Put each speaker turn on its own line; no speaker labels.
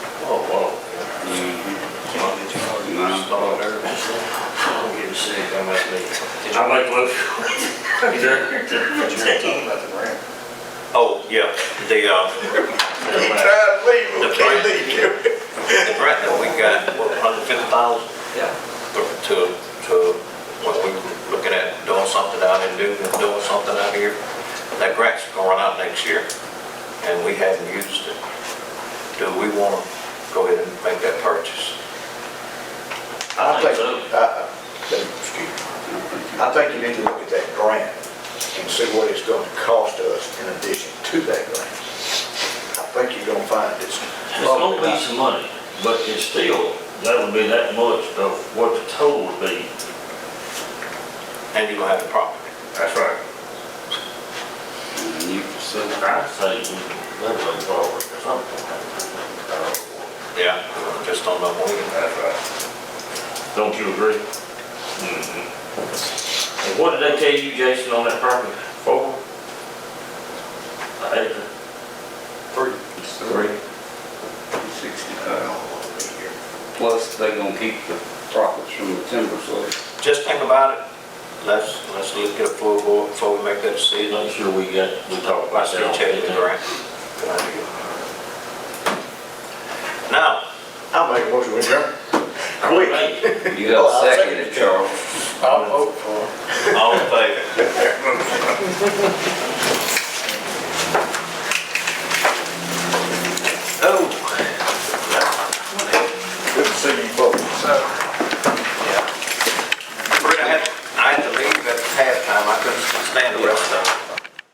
Oh,
I'd like to look. Sure.
But you were talking about the ramp.
Oh, yeah, the, uh,
to leave,
The
we can't
price.
leave you.
the grant that we got, what, hundred fifty thousand?
Yeah.
To, to, when we were looking at doing something out in Newton, doing something out here, that grant's gonna run out next year, and we haven't used it. Do we wanna go ahead and make that purchase?
I
think so.
think, I, I, Uh, excuse me. I think you need to look at that grant and see what it's gonna cost us in addition to that grant. I think you're gonna find it's.
It's gonna be some money, but it's still, that would be that much of what the total would be.
And you gonna have the property?
That's right.
And you can sell it.
I'd say we let them forward or something.
Yeah. Just don't know when.
That's right. Don't you agree? And Mm-hmm. what did they tell you, Jason, on that property? Four? An acre?
It's three. Sixty thousand. Plus, they gonna keep the profits from the timber sale.
Just think about it. Let's, let's look at a full board before we make that
Make
decision.
sure we got, we talked
I
about that.
still check the grant. Now,
I'll make a motion, we adjourn.
Quick.
You gotta second it, Charles.
Oh.